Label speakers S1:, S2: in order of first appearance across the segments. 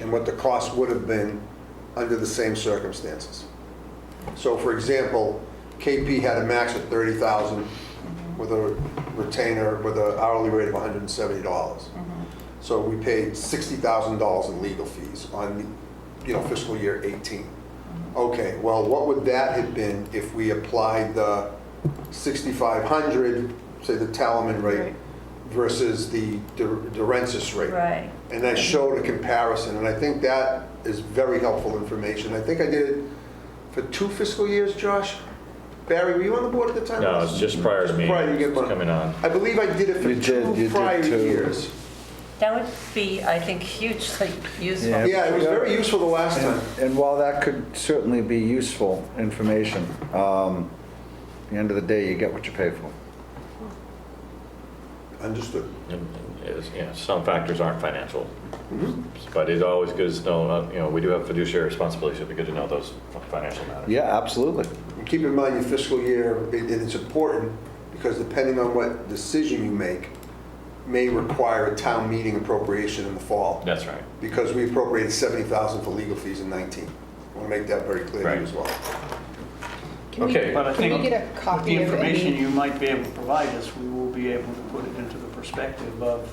S1: and what the cost would have been under the same circumstances. So for example, KP had a max of 30,000 with a retainer, with an hourly rate of $170. So we paid $60,000 in legal fees on, you know, fiscal year 18. Okay, well, what would that have been if we applied the 6,500, say the Talaman rate
S2: Right.
S1: versus the Dur- Durensis rate?
S2: Right.
S1: and I showed a comparison, and I think that is very helpful information. I think I did it for two fiscal years, Josh. Barry, were you on the board at the time?
S3: No, it's just prior to me.
S1: Prior to you get one.
S3: Coming on.
S1: I believe I did it
S4: You
S1: for
S4: did, you
S1: two
S4: did
S1: prior
S4: two.
S1: years.
S2: That would be, I think, hugely useful.
S4: Yeah.
S1: Yeah, it was very useful the last time.
S4: And and while that could certainly be useful information, um, at the end of the day, you get what you pay for.
S1: Understood.
S3: And- and is- yeah, Some factors aren't financial,
S1: Mm-hmm.
S3: but it's always good to know, uh, you know, we do have fiduciary responsibility, so it'd be good to know those financial matters.
S4: Yeah, absolutely.
S1: And keep in mind, your fiscal year, it- it's important, because depending on what decision you make, may require a town meeting appropriation in the fall.
S3: That's right.
S1: because we appropriated 70,000 for legal fees in 19. I want to make that very clear to you as well.
S5: Can we-
S3: Okay.
S6: But I
S5: Can
S6: think
S5: we get a
S6: with
S5: copy
S6: the
S5: of
S6: information
S5: any?
S6: you might be able to provide us, we will be able to put it into the perspective of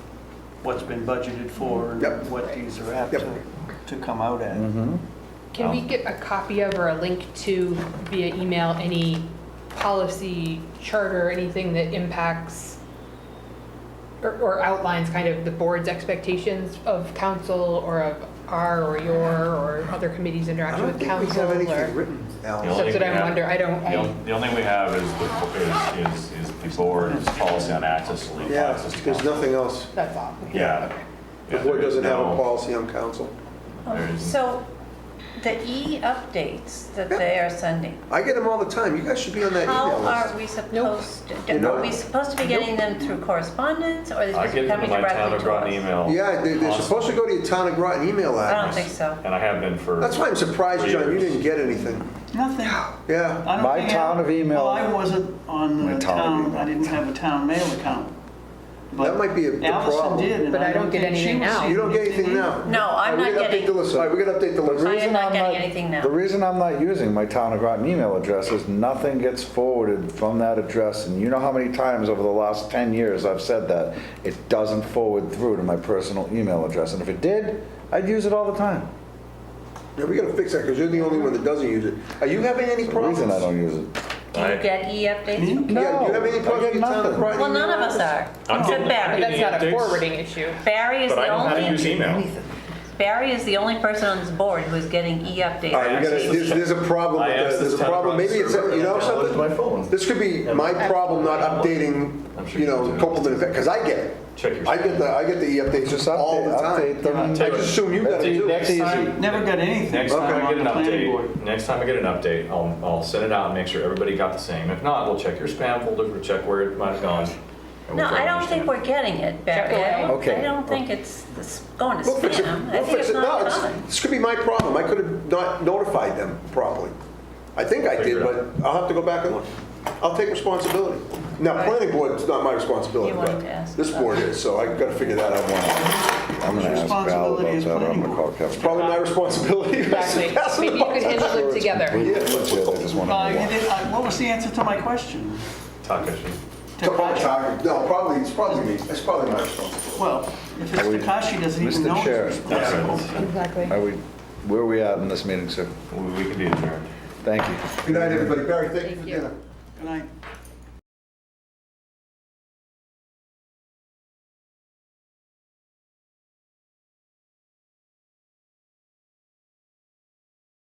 S6: what's been budgeted for
S1: Yep.
S6: and what these are apt
S1: Yep.
S6: to, to come out at.
S4: Mm-hmm.
S5: Can
S1: Um.
S5: we get a copy of or a link to via email, any policy charter, anything that impacts or- or outlines kind of the board's expectations of council or of our or your or other committees'
S1: I
S5: interaction
S1: don't
S5: with
S1: think we
S5: council?
S1: have
S5: or-
S1: anything written,
S3: No.
S1: Alan.
S5: That's what I'm wondering, I don't,
S3: The
S5: I-
S3: on- the only thing we have is the, is, is- is the board's policy on access to legal
S1: Yeah,
S3: access to
S1: there's
S3: counsel.
S1: nothing else.
S5: that's all.
S3: Yeah.
S1: The
S3: Yeah,
S1: board
S3: there is
S1: doesn't have a
S3: no-
S1: policy on council.
S3: There is-
S2: So the e-updates that they are sending,
S1: I get them all the time. You guys should be on that
S4: E
S2: how
S1: email
S2: are
S1: list.
S2: we supposed,
S1: Nope.
S2: are we supposed to be getting them through correspondence or are they
S3: I
S2: supposed to
S3: get
S2: be
S3: them to
S2: coming
S3: my town
S2: directly
S3: of
S2: to
S3: Groton
S2: us?
S3: email.
S1: Yeah, they- they're
S3: constantly,
S1: supposed to go to your town of Groton email
S2: I don't
S1: address.
S2: think so.
S3: And I have been for.
S1: That's why I'm surprised, John, you didn't get anything.
S6: Nothing.
S1: Yeah.
S6: I don't
S4: My
S6: think I-
S4: town of email.
S6: Well, I wasn't on
S4: My
S6: the
S4: town of
S6: town,
S4: email.
S6: I didn't have a town mail account. But
S1: That might be a- the problem.
S6: Allison did, and
S5: But
S6: I
S5: I
S6: don't
S5: don't get
S6: think she
S5: anything now.
S6: received
S1: You don't get anything
S6: either.
S1: now?
S2: Uh, No, I'm
S1: All right, we
S2: not
S1: gotta update
S2: getting-
S1: the list. All right, we got to update the
S4: The
S1: list.
S4: reason
S2: not
S4: I'm
S2: getting anything now.
S4: The reason I'm not using my town of Groton email address is nothing gets forwarded from that address, and you know how many times over the last 10 years I've said that. It doesn't forward through to my personal email address, and if it did, I'd use it all the time.
S1: Yeah, we got to fix that, because you're the only one that doesn't use it. Are you having any
S4: The
S1: problems?
S4: reason I don't use it.
S2: Do you
S3: I-
S2: get e-updates? from-
S4: No,
S1: Yeah, do you have any
S4: I
S1: problems
S4: get
S1: with your town of
S4: nothing.
S1: Groton?
S2: Well, none
S1: email
S2: of us
S1: address?
S2: are.
S3: I'm
S2: Except
S3: getting-
S5: But
S2: Barry.
S5: that's not a
S3: Updating updates.
S5: forwarding issue.
S2: Barry is
S3: But I
S2: the
S3: know how to use
S2: only,
S3: email.
S2: Barry is the only person on this board who is getting E
S1: All right,
S2: e-updates.
S1: we gotta, there's, there's a problem
S3: I
S1: with that,
S3: asked
S1: there's
S3: this
S1: a
S3: town
S1: problem, maybe it's,
S3: server
S1: you know
S3: and I downloaded my phone.
S1: something? This could be my problem not updating, you know, Copeland, because I get it.
S3: Check your-
S1: I get the, I get the e-updates
S4: Just
S1: all
S4: update,
S1: the time.
S4: update them. e- and-
S1: I just assume you got it too.
S3: Next
S4: That's
S3: time,
S4: easy.
S6: Never got anything.
S3: Next time I
S6: on
S3: get an
S6: the planning board.
S3: update, next time I get an update, I'll, I'll send it out and make sure everybody got the same. If not, we'll check your spam folder, we'll check where it might have gone. and
S2: No,
S3: we'll
S2: I don't
S3: finish
S2: think
S3: it.
S2: we're getting it, Barry. I don't-
S4: Okay.
S2: I don't think it's it's going to
S1: We'll fix it,
S2: spam. I
S1: we'll
S2: think
S1: fix
S2: it's
S1: it, no,
S2: not
S1: it's-
S2: coming.
S1: this could be my problem, I could have not notified them properly. I think I
S3: Figure
S1: did,
S3: it
S1: but I'll have to go back and look. I'll take responsibility. Now, planning board, it's not my responsibility,
S2: You wanted to
S1: but
S2: ask
S1: this
S2: about
S1: board is, so I gotta figure that out one.
S4: I'm gonna ask Val about
S6: Responsibility is
S4: that, I'm
S6: planning
S4: gonna call
S6: board.
S4: Kevin.
S1: Probably my responsibility.
S5: Exactly.
S1: Pass it
S5: Maybe you
S1: on.
S5: could handle it together.
S4: Completely legit, I just wanna
S6: Uh,
S4: know
S6: you
S4: why.
S6: did- uh, What was the answer to my question?
S3: Takashi.
S6: Takashi.
S1: No, probably, it's probably me, it's probably my responsibility.
S6: Well, if it's
S4: Are we-
S6: Takashi, doesn't even
S4: Mr.
S6: know. it's
S4: Chair.
S6: responsible.
S5: Exactly.
S4: Are we, where are we at in this meeting, sir?
S3: We we can be adjourned.
S4: Thank you.
S1: Good night, everybody. Barry, thank you for
S5: Thank you.
S1: dinner.
S6: Good night.